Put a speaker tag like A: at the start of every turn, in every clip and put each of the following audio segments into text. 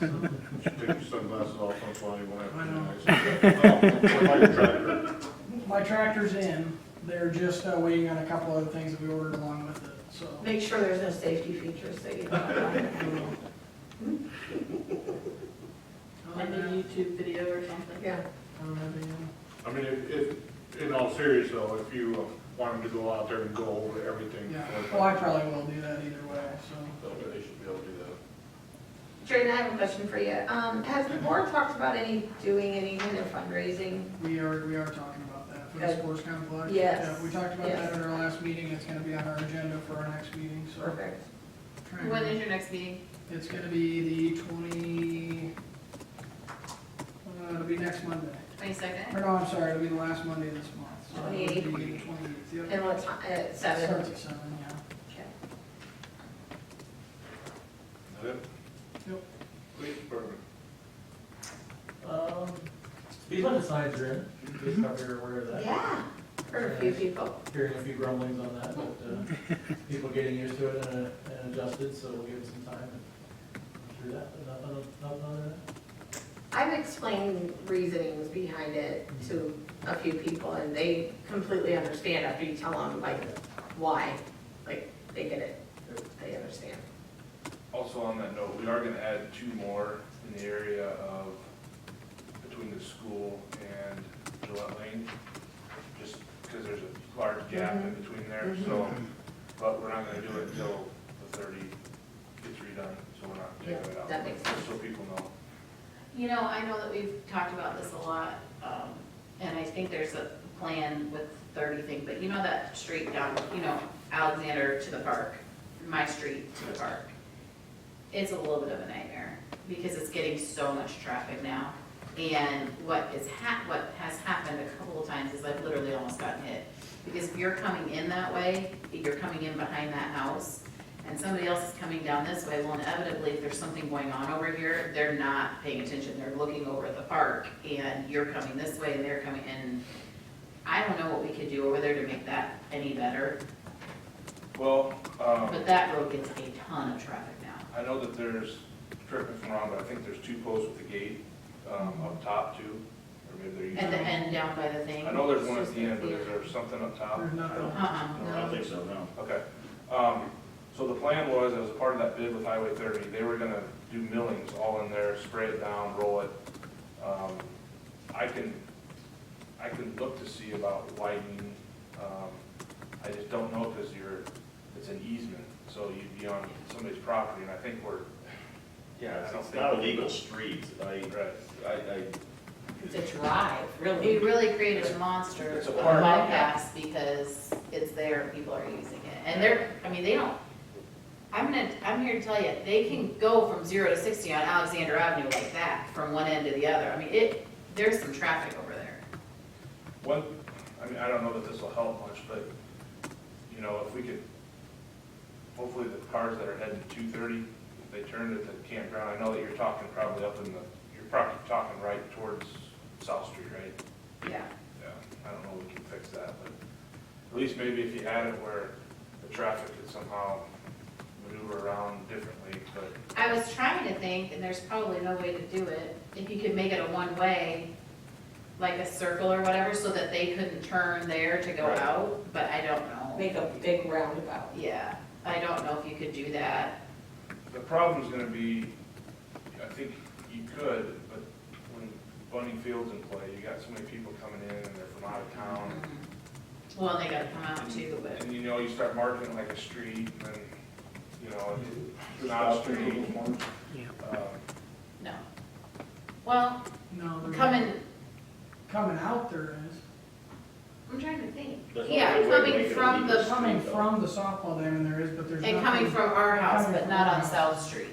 A: Take your sunglasses off, I'm flying when
B: I
A: I.
B: My tractor's in, they're just uh, waiting on a couple other things that we ordered along with it, so.
C: Make sure there's no safety features that you don't like.
B: Other
D: Like a
B: than that,
D: YouTube video or something.
C: Yeah,
B: I don't have any-
A: I mean, if, if, in all seriousness though, if you uh, want them to go out there and go over everything.
B: Yeah,
A: before-
B: well, I probably will do that either way, so.
A: They should be able to do that.
C: Jordan, I have a question for you. Um, has the board talked about any, doing any kind of fundraising?
B: We are, we are talking about that for the
C: Good.
B: sports complex.
C: Yes.
B: Yeah, We talked about
C: Yes.
B: that at our last meeting, it's gonna be on our agenda for our next meeting, so.
C: Perfect.
B: trying to-
D: When is your next meeting?
B: It's gonna be the twenty, uh, it'll be next Monday. Or
D: Twenty-second?
B: no, I'm sorry, it'll be the last Monday of this month. So it'll be
C: 28th.
B: the 28th, yep.
C: And what time, at seven?
B: Starts at seven, yeah.
C: Okay.
A: Is it?
B: Yep.
A: Police department.
E: Um, Speed limit signs are in, just not very aware of that.
C: Yeah, for a few people.
E: Hearing a few grumblings on that, but, uh, people getting used to it and, uh, and adjusted, so we'll give it some time and through that, but nothing, nothing other than that.
C: I've explained reasonings behind it to a few people and they completely understand after you tell them like why. Like, they get it. They understand.
F: Also on that note, we are gonna add two more in the area of, between the school and Gillette Lane, just because there's a large gap in
C: Mm-hmm.
F: between there, so, but we're not gonna do it until the thirty gets redone, so we're not
C: Yeah,
F: taking it out.
C: that makes
F: Just
C: sense.
F: So people know.
D: You know, I know that we've talked about this a lot, um, and I think there's a plan with thirty thing, but you know that street down, you know, Alexander to the park, my street to the park. It's a little bit of a nightmare, because it's getting so much traffic now. And what is hap, what has happened a couple of times is I've literally almost gotten hit. Because if you're coming in that way, you're coming in behind that house, and somebody else is coming down this way, well inevitably, if there's something going on over here, they're not paying attention, they're looking over at the park, and you're coming this way, and they're coming in. I don't know what we could do over there to make that any better,
F: Well, um.
D: but that road gets a ton of traffic now.
F: I know that there's, correct me if I'm wrong, but I think there's two posts with a gate, um, up top too, or maybe they're using.
D: At the end down by the thing.
F: I know there's one at the end, but is there something up top?
B: There's nothing.
D: Uh-uh,
F: I
D: no.
F: don't think so, no. Okay. Um, so the plan was, as part of that bid with Highway thirty, they were gonna do millings all in there, spray it down, roll it. Um, I can, I can look to see about widening, um, I just don't know, cause you're, it's an easement, so you'd be on somebody's property, and I think we're, yeah, I don't
G: It's
F: think.
G: not a legal street, I,
F: Right.
G: I, I,
C: It's a drive, really.
D: We really created a monster
F: It's
D: of
F: a park, yeah.
D: bypass because it's there, and people are using it. And they're, I mean, they don't, I'm gonna, I'm here to tell you, they can go from zero to sixty on Alexander Avenue like that, from one end to the other. I mean, it, there's some traffic over there.
F: One, I mean, I don't know that this will help much, but, you know, if we could, hopefully the cars that are heading to two thirty, if they turn at the campground, I know that you're talking probably up in the, you're probably talking right towards South Street, right?
D: Yeah.
F: Yeah, I don't know if we can fix that, but at least maybe if you had it where the traffic could somehow maneuver around differently, but
D: I was trying to think, and there's probably no way to do it, if you could make it a one-way, like a circle or whatever, so that they couldn't turn there to go
F: Right.
D: out, but I don't know.
C: Make a big roundabout.
D: Yeah, I don't know if you could do that.
F: The problem's gonna be, I think you could, but when Bunny Field's in play, you got so many people coming in and they're from out of town.
D: Well, they gotta come out too, but,
F: And you know, you start marketing like a street and, then, you know, it's not a street. Um,
D: no. Well,
B: No, there's.
D: coming,
B: Coming out there is.
D: I'm trying to think.
G: There's no
D: Yeah,
G: way to make
D: coming
G: it
D: from
G: illegal.
D: the,
B: Coming from the softball diamond there is, but there's nothing.
D: and coming from our house,
B: Coming
D: but
B: from
D: not
B: our
D: on
B: house.
D: South Street.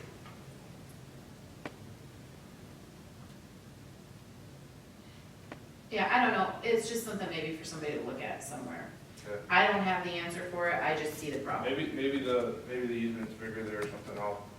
D: Yeah, I don't know, it's just something maybe for somebody to look at somewhere.
F: Okay.
D: I don't have the answer for it, I just see the problem.
F: Maybe, maybe the, maybe the easement's bigger there or something, I'll